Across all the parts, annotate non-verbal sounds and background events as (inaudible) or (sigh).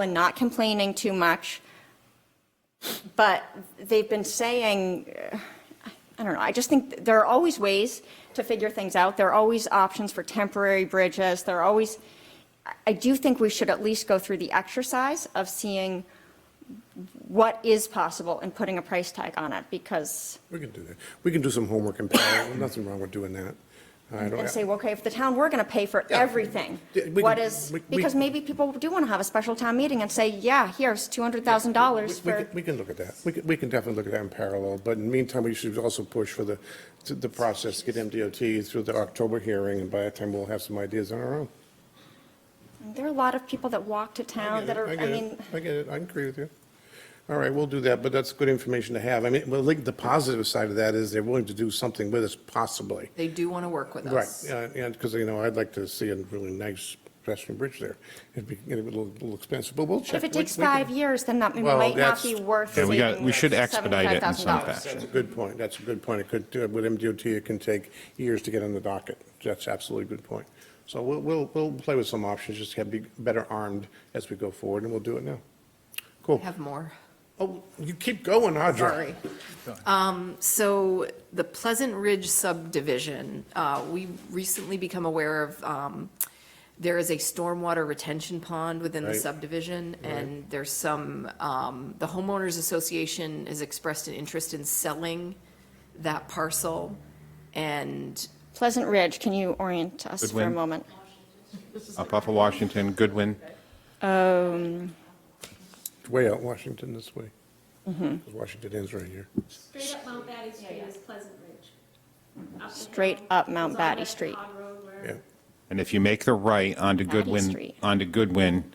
We're not complaining too much. But they've been saying, uh, I don't know, I just think there are always ways to figure things out. There are always options for temporary bridges. There are always, I- I do think we should at least go through the exercise of seeing what is possible and putting a price tag on it because, We can do that. We can do some homework and parallel. (coughs) Nothing wrong with doing that. I don't- and say, well, okay, if the town, we're going to pay for Yeah. everything. Yeah, we What can- is, we- we- because maybe people do want to have a special town meeting and say, yeah, here's We- $200,000 we for. can- We can look at that. We can, we can definitely look at that in parallel, but in the meantime, we should also push for the, to the process, get MDOT through the October hearing, and by that time, we'll have some ideas on our own. There are a lot of people that walk to town that are, I get it. mean, I get it, I agree with you. All right, we'll do that, but that's good information to have. I mean, well, like, the positive side of that is they're willing to do something with us possibly. They do want to work with Right, us. uh, and, because, you know, I'd like to see a really nice pedestrian bridge there. It'd be, it'd be a little, little expensive, but we'll check. if it We- takes we can- five years, then that Well, might not that's- be worth Yeah, we got- saving we should expedite it in some $75,000. fashion. That's a good point, that's a good point. It could, uh, with MDOT, it can take years to get on the docket. That's absolutely a good point. So we'll, we'll, we'll play with some options, just have, be better armed as we go forward, and we'll do it now. Cool. Have more, Oh, you keep going, Audra. sorry. Um, So the Pleasant Ridge subdivision, uh, we recently become aware of, um, there is a stormwater retention pond within the Right. subdivision, and there's some, um, the homeowners association has expressed an interest in selling that parcel, and Pleasant Ridge, can you orient us for a Goodwin. moment? Up off of Washington, Goodwin. Um, Way out Washington this way. Mm-hmm. 'Cause Washington ends right here. Straight up Mount Batty Street is Pleasant Ridge. Up the Straight hill. up Mount It's on that Batty Street. odd road where- Yeah, And if you make the right onto Goodwin, Street. onto Goodwin,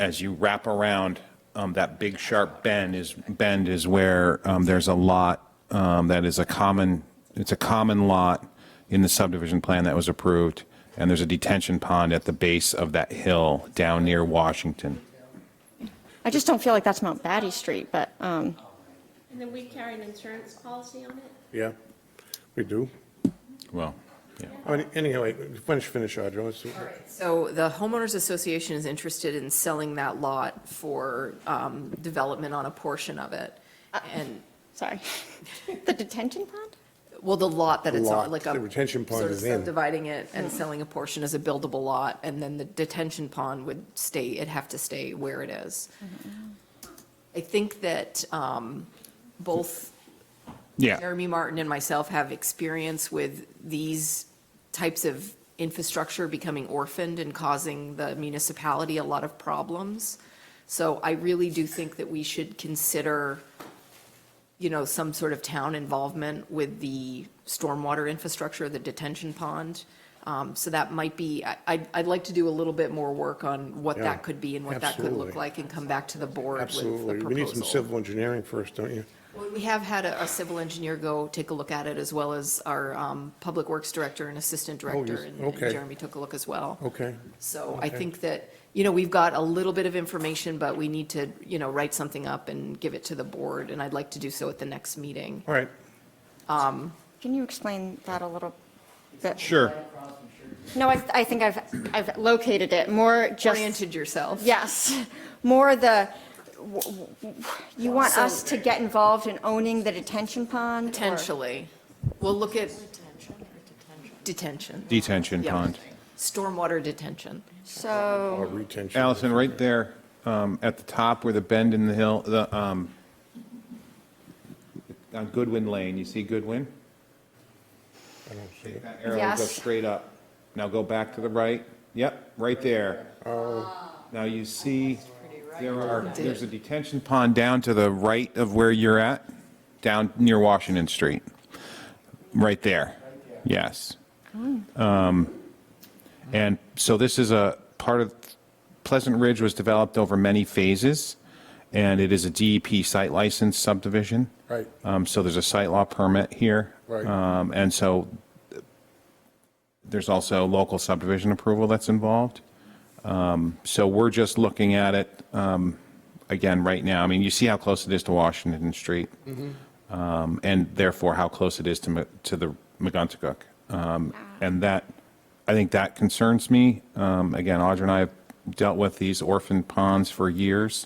as you wrap around, um, that big sharp bend is, bend is where, um, there's a lot, um, that is a common, it's a common lot in the subdivision plan that was approved. And there's a detention pond at the base of that hill down near Washington. I just don't feel like that's Mount Batty Street, but, um, And then we carry an insurance policy on it. yeah, we do. Well, yeah. I mean, Anyway, finish, finish, Audra. Let's- So the homeowners association is interested in selling that lot for um, development on a portion of it. And, sorry. (laughs) The detention pond? well, the lot that it's Lot, on, like a. the retention pond sort of is in. Subdividing it and selling a portion as a buildable lot, and then the detention pond would stay, it'd have to stay where it is. I think that um, both Yeah, Jeremy Martin and myself have experience with these types of infrastructure becoming orphaned and causing the municipality a lot of problems. So I really do think that we should consider, you know, some sort of town involvement with the stormwater infrastructure, the detention pond. Um, So that might be, I- I'd, I'd like to do a little bit more work on what Yeah, that could be and what that could absolutely. look like and come back to the board with the proposal. Absolutely. We need some civil engineering first, don't you? Well, We have had a a civil engineer go take a look at it, as well as our um, Public Works Director and Assistant Director, Oh, yes, and and okay. Jeremy took a look as well. Okay. So I okay. think that, you know, we've got a little bit of information, but we need to, you know, write something up and give it to the board, and I'd like to do so at the next meeting. All right. Can you explain that a little bit? sure. No, I, I think I've, I've located it, more just, Oriented yourself. yes, more the, w- w- w- you want So- us to get involved in owning the detention pond? or- Potentially. We'll look at. Detention. Detention Yeah. pond. Stormwater detention. So. Or retention. Allison, right there, um, at the top where the bend in the hill, the, um, on Goodwin Lane, you see Goodwin? I don't see it. That arrow goes Yes. straight up. Now go back to the right. Yep, right there. Oh. Now you see, there are, there's a detention pond down to the right of where you're at, down near Washington Street. Right there. Yes. Um, And so this is a part of, Pleasant Ridge was developed over many phases, and it is a DEP site license subdivision. Right. Um, So there's a site law permit here. Right. Um, And so uh, there's also local subdivision approval that's involved. Um, So we're just looking at it, um, again, right now. I mean, you see how close it is to Washington Street um, and therefore how close it is to, Ma- to the McGuntacook. Um, And that, I think that concerns me. Um, Again, Audra and I have dealt with these orphan ponds for years.